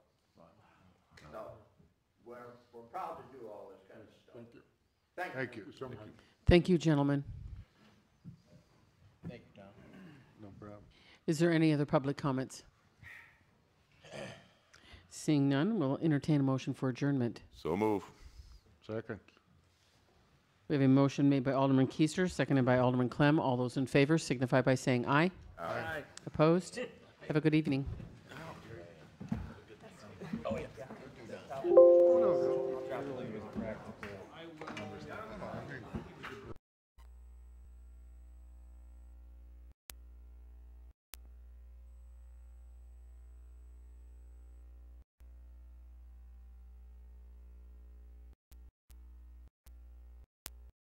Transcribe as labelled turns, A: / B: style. A: we're proud to do all this kind of stuff.
B: Thank you.
A: Thank you.
B: Thank you so much.
C: Thank you, gentlemen.
D: Thank you, Tom.
B: No problem.
C: Is there any other public comments? Seeing none, we'll entertain a motion for adjournment.
E: So move.
B: Second.
C: We have a motion made by Alderman Keister, seconded by Alderman Clem. All those in favor signify by saying aye. Aye. Opposed? Have a good evening.